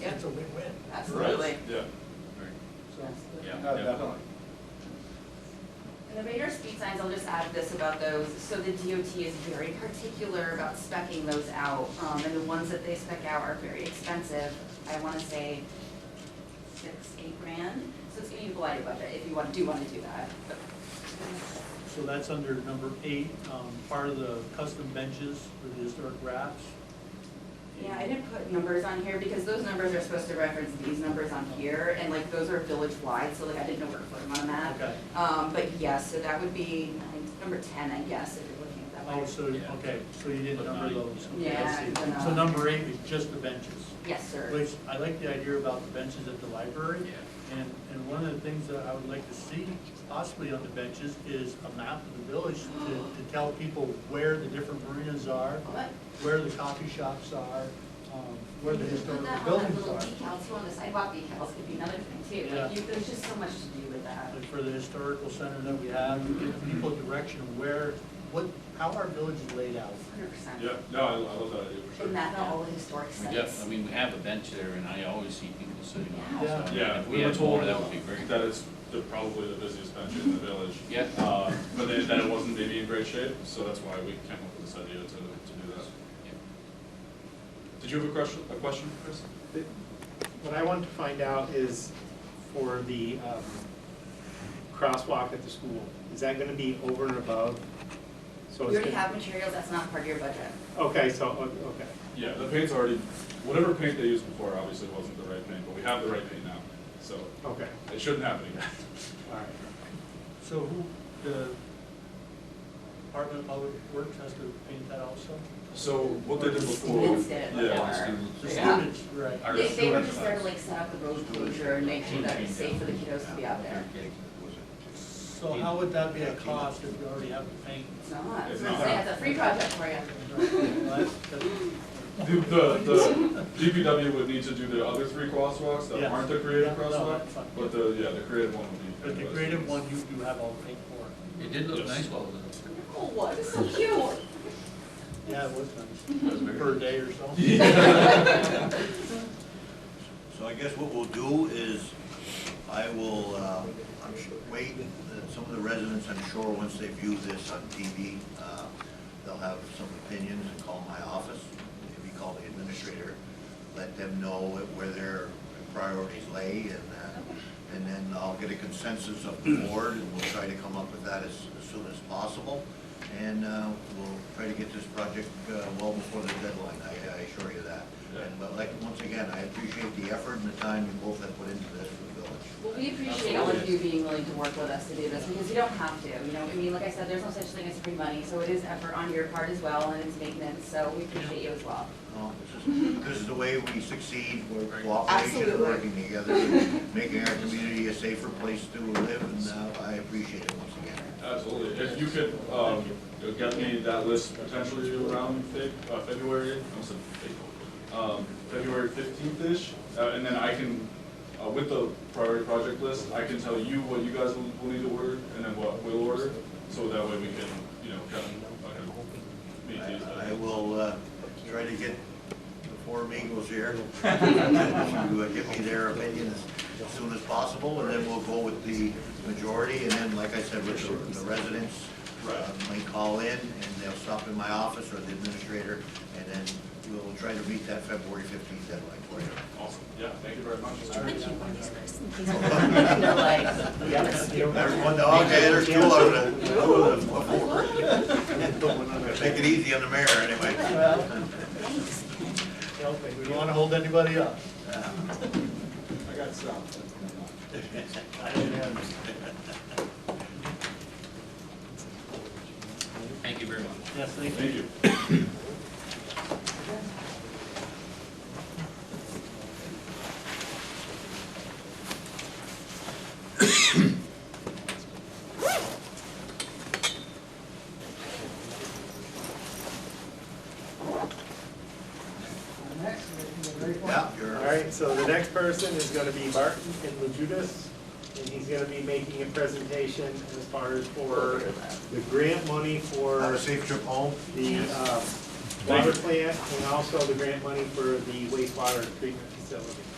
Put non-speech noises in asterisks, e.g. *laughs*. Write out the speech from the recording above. Yep. It's a win-win. Absolutely. Yeah. So, Yeah, no, Oh, definitely. definitely. And the radar speed signs, I'll just add this about those, so the DOT is very particular about specking those out, um, and the ones that they spec out are very expensive. I wanna say six, eight grand, so it's gonna be a blighted budget if you want, do wanna do that. So that's under number eight, um, part of the custom benches for the historic wraps. Yeah, I didn't put numbers on here because those numbers are supposed to reference these numbers on here, and like those are village-wide, so like I didn't know where to put them on a map. Okay. Um, but yes, so that would be nine- number ten, I guess, if you're looking at that Oh, one. so, Yeah. okay, so you didn't But number nine, those. yeah. Okay, I Yeah, see. but not- So number eight was just the benches, Yes, sir. which I like the idea about the benches at the library. Yeah. And, and one of the things that I would like to see possibly on the benches is a map of the village to, to tell people where the different marinas are, What? where the coffee shops are, um, where the You could historical Put buildings that on that are. little decal too, on the sidewalk decals could be another thing too. Yeah. Like, you- there's just so much to do with that. Like for the historical center that we have, to give people direction of where, what, how our village is laid out. Hundred percent. Yeah, no, I, I love that idea for sure. And that, all the historic We sites. def- I mean, we have a bench there, and I always see people sitting on it, so. I mean, Yeah. If We we were had more, told that would be great. That is the, probably the busiest bench in the village. Yeah. Uh, but then, then it wasn't maybe in great shape, so that's why we came up with this idea to, to do that. Did you have a question, a question, Chris? What I want to find out is for the um, crosswalk at the school, is that gonna be over and above? So We it's already gonna- have materials, that's not part of your budget. Okay, so, o- okay. Yeah, the paint's already, whatever paint they used before obviously wasn't the right paint, but we have the right paint now, so Okay, it shouldn't happen again. all right. So who, the Department of Public Works has to paint that also? So what they did before. Students did it Yeah. before. The Yeah. students, right. Our They, they were storage just there to box. like set up the road closure and make sure that it's safe for the kiddos to be out there. So how would that be a cost if you already have the paint? It's not, It's it's not, not. it's a free project for you. Well, *laughs* that's- that's- The, the, the DPW would need to do the other three crosswalks that Yes. aren't the creative Yeah, no, crosswalk, that's fine. but the, yeah, the creative one would be. But the creative one, you, you have all the paint for. It did look Yes. nice while it was Oh, what, it's so cute. Yeah, it was nice, in. it was very- per day or so. So I guess what we'll do is, I will, uh, I'm sure, wait, uh, some of the residents, I'm sure, once they view this on TV, uh, they'll have some opinions and call my office, maybe call the administrator, let them know where their priorities lay, and, uh, and then I'll get a consensus of the board, and we'll try to come up with that as, as soon as possible, and uh, we'll try to get this project uh, well before the deadline, I I assure you that. And but like, once again, I appreciate the effort and the time you both have put into this for the village. Well, we appreciate all of you being willing to work with us to do this, because you don't have to, you know, I mean, like I said, there's no such thing as free money, so it is effort on your part as well, and it's maintenance, so we appreciate you as well. *laughs* No, Um, This is, this is the way we succeed, we're cooperation and Absolutely. working together, and making our community a safer place to live, and uh, I appreciate it once again. Absolutely, if you could, um, you know, get me that list potentially around Feb, uh, February, I almost said Feb- um, February fifteenth-ish, uh, and then I can, uh, with the priority project list, I can tell you what you guys will, will need to order, and then what we'll order, so that way we can, you know, kind of, uh, meet these. I I uh, will uh, try to get the four amigos here *laughs* to uh, give me their opinions as soon as possible, and then we'll go with the majority, and then, like I said, with the- the residents, uh, Right. may call in, and they'll stop in my office or the administrator, and then we'll try to meet that February fifteenth deadline *laughs* for you. Awesome, yeah, thank you very much. They're like, There's one dog, okay, there's two of them. Two of them. Take it easy on the mayor, anyway. Well, *laughs* We don't wanna hold anybody up. Uh, I got stopped. Thank you very much. Yes, thank you. Thank you. Next, Yeah, you're. All right, so the next person is gonna be Martin Inlujudis, and he's gonna be making a presentation as far as for the grant money for Have a safe trip home. uh, the um, water plant and also the grant money for the wastewater treatment facility. so.